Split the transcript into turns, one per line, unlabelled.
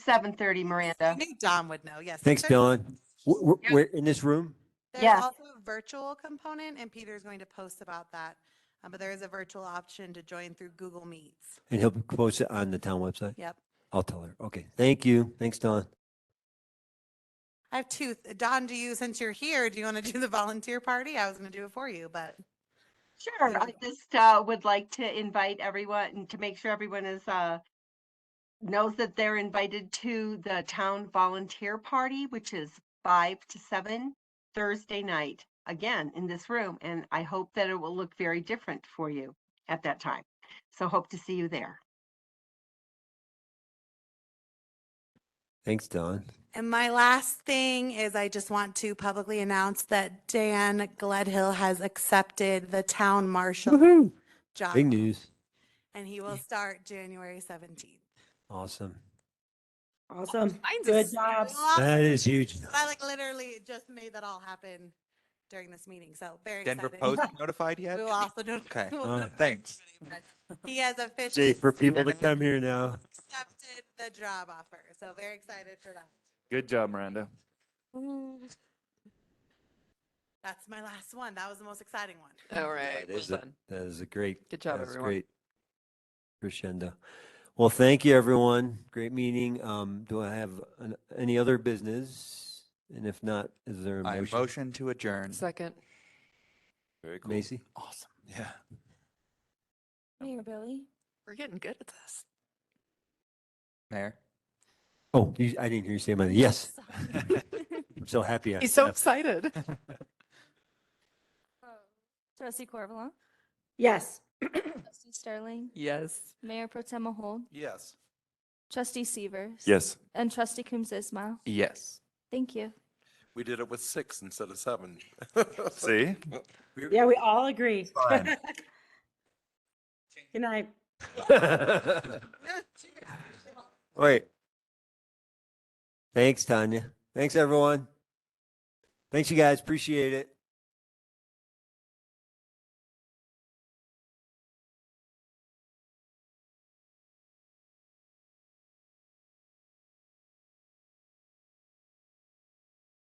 seven thirty, Miranda.
I think Don would know, yes.
Thanks,
There's-
Dylan. W- w-
Yep.
We're in this room?
There's
Yeah.
also a virtual component, and Peter's going to post about that. Uh, But there is a virtual option to join through Google Meets.
And he'll post it on the town website?
Yep.
I'll tell her. Okay, thank you. Thanks, Don.
I have two. Don, do you, since you're here, do you want to do the volunteer party? I was going to do it for you, but
Sure, I just uh, would like to invite everyone and to make sure everyone is uh, knows that they're invited to the town volunteer party, which is five to seven Thursday night, again in this room. And I hope that it will look very different for you at that time. So hope to see you there.
Thanks, Don.
And my last thing is I just want to publicly announce that Dan Gledhill has accepted the town marshal
Woohoo!
job.
Big news.
And he will start January 17th.
Awesome.
Awesome.
Mine's
Good
a
job.
I
That is huge.
like literally just made that all happen during this meeting. So very
Denver
excited.
Post notified yet?
We will also do.
Okay.
we'll
Uh,
notify
Thanks.
everybody, but He has officially
Jay, for people to come here now.
accepted the job offer. So very excited for that.
Good job, Miranda.
That's my last one. That was the most exciting one.
All right.
That is
well
a-
done.
That is a great
Good job,
That's
everyone.
great Crescendo. Well, thank you, everyone. Great meeting. Um, do I have an- any other business? And if not, is there a
I
motion?
motion to adjourn.
Second.
Very cool.
Macy?
Awesome. Yeah.
Mayor Billy?
We're getting good at this.
Mayor.
Oh, you, I didn't hear you say my, yes,
Sorry.
I'm so happy. I-
He's so
I-
excited.
Trustee Corvalon?
Yes.
Trustee Sterling?
Yes.
Mayor Pro Tem Mahol?
Yes.
Trustee Severs?
Yes.
And Trustee Coombs Ismail?
Yes.
Thank you.
We did it with six instead of seven.
See?
Yeah, we all agree.
Fine.
Good night.
Wait. Thanks, Tanya. Thanks, everyone. Thanks, you guys. Appreciate it.